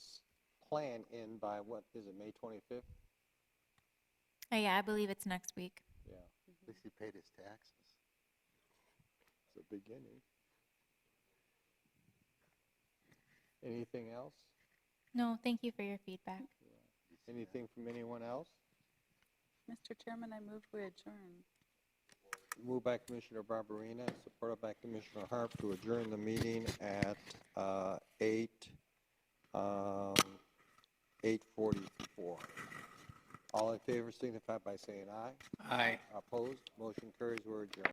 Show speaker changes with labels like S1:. S1: plan in by what, is it May twenty-fifth?
S2: Oh, yeah, I believe it's next week.
S1: Yeah,
S3: At least he paid his taxes.
S1: it's a beginning. Anything else?
S2: No, thank you for your feedback.
S3: You see that?
S1: Anything from anyone else?
S4: Mr. Chairman, I move we adjourn.
S1: Moved by Commissioner Barberina, and supported by Commissioner Harp to adjourn the meeting at uh, eight, um, 8:44. All in favor signify by saying aye.
S5: Aye.
S1: Opposed, motion carries, we're adjourned.